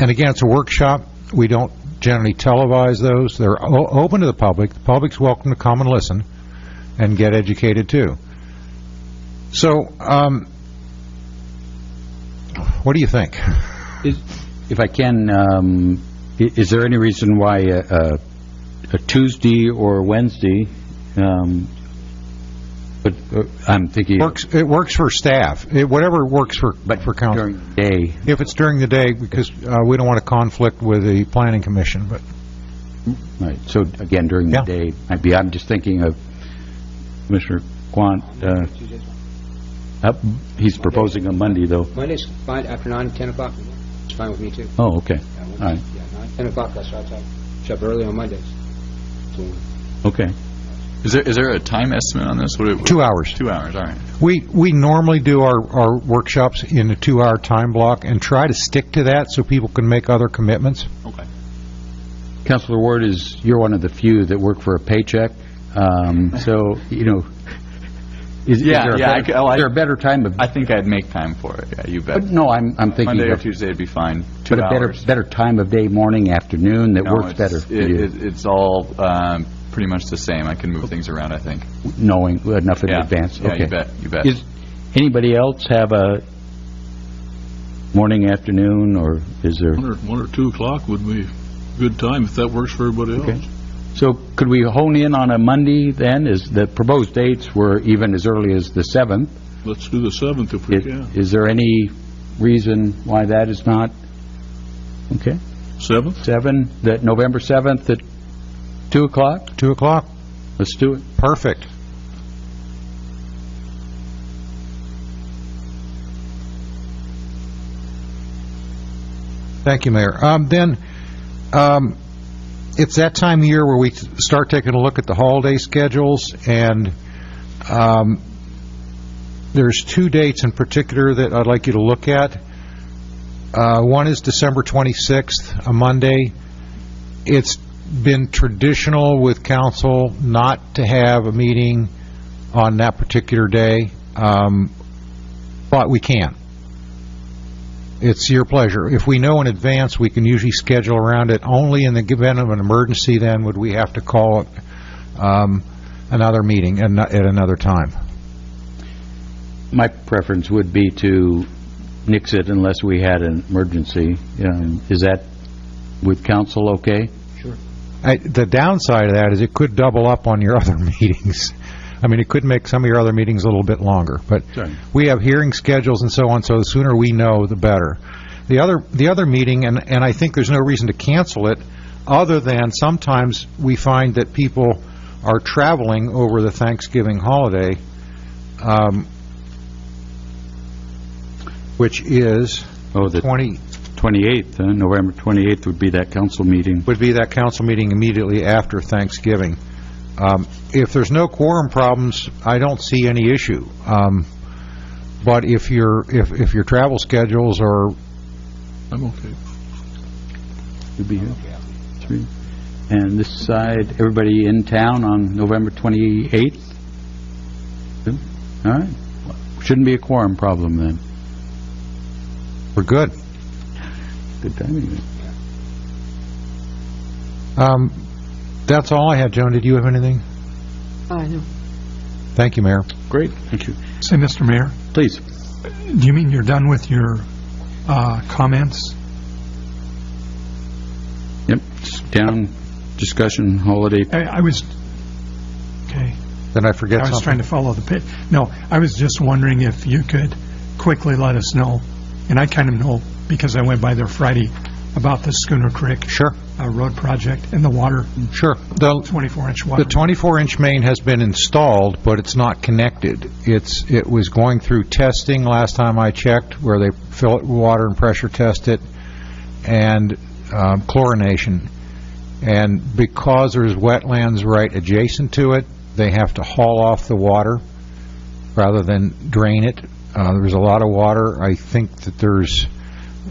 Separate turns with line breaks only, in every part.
And again, it's a workshop. We don't generally televise those. They're o- open to the public. The public's welcome to come and listen and get educated, too. So, um, what do you think?
Is- If I can, um, i- is there any reason why a- a a Tuesday or Wednesday, um, but uh, I'm thinking
Works, it works for staff, It- whatever works for, for council.
during the day,
If it's during the day, because uh, we don't want to conflict with the planning commission, but,
right, so again, during the
Yeah.
day, might be, I'm just thinking of Mr. Quant, uh, up- he's proposing a Monday, though.
Monday's fine, after nine, 10 o'clock, it's fine with me, too.
Oh, okay,
Yeah,
all
we'll-
right,
Yeah, nine, 10 o'clock, that's right, I shop early on Mondays. So,
okay.
Is there, is there a time estimate on this? What it-
two hours.
Two hours, all right.
We, we normally do our, our workshops in a two-hour time block and try to stick to that so people can make other commitments.
Okay.
Counselor Ward is, you're one of the few that work for a paycheck, um, so, you know, is is
Yeah,
there a
yeah, I
better-
c- oh, I-
is there a better time of
I think I'd make time for it, yeah, you bet.
But Uh, no, I'm, I'm
Monday
thinking
or
of,
Tuesday would be fine,
but
two
a better,
hours.
better time of day, morning, afternoon, that
No,
works
it's-
better for
it-
you,
it- It's all um, pretty much the same, I can move things around, I think.
knowing enough in
Yeah.
advance,
Yeah,
okay.
you bet, you bet.
Is, anybody else have a morning, afternoon, or is there,
One or, one or two o'clock would be a good time, if that works for everybody
Okay.
else.
so could we hone in on a Monday then? Is, the proposed dates were even as early as the 7th.
Let's do the seventh if we can.
Is there any reason why that is not? Okay,
Seventh?
7, that, November 7th at 2 o'clock?
Two o'clock,
Let's do it.
perfect. Thank you, Mayor. Um, Then, um, it's that time of year where we start taking a look at the holiday schedules, and um, there's two dates in particular that I'd like you to look at. Uh, One is December 26th, a Monday. It's been traditional with council not to have a meeting on that particular day, um, but we can. It's your pleasure. If we know in advance, we can usually schedule around it. Only in the event of an emergency, then, would we have to call um, another meeting and not- at another time.
My preference would be to nix it unless we had an emergency. Um, Is that with council okay?
I- The downside of that is it could double up on your other meetings. I mean, it could make some of your other meetings a little bit longer, but
Sure.
we have hearing schedules and so on, so the sooner we know, the better. The other, the other meeting, and, and I think there's no reason to cancel it, other than sometimes we find that people are traveling over the Thanksgiving holiday, um, which is
Oh, the
20,
28th, huh? November 28th would be that council meeting.
would be that council meeting immediately after Thanksgiving. Um, If there's no quorum problems, I don't see any issue. Um, But if your, if, if your travel schedules are,
I'm okay.
You'd be here? Three. And this side, everybody in town on November 28th? Good. All right. Shouldn't be a quorum problem then.
are good.
Good timing.
Um, That's all I had, Joan. Did you have anything?
I know.
Thank you, Mayor.
Great. Thank you.
Say, Mr. Mayor,
Please.
do you mean you're done with your uh, comments?
Yep. Town discussion, holiday
I- I was, okay,
Did I forget
I
something?
was trying to follow the pit. No, I was just wondering if you could quickly let us know, and I kind of know because I went by there Friday, about the Schooner Creek
Sure,
uh, Road Project and the water,
sure. The
24-inch
The
water.
24-inch main has been installed, but it's not connected. It's, it was going through testing last time I checked, where they fill it with water and pressure test it, and um, chlorination. And because there's wetlands right adjacent to it, they have to haul off the water rather than drain it. Uh, There's a lot of water. I think that there's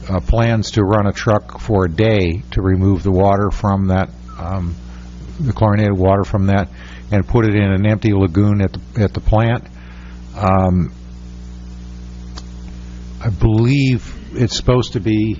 uh, plans to run a truck for a day to remove the water from that um, the chlorinated water from that and put it in an empty lagoon at the, at the plant. Um, I believe it's supposed to be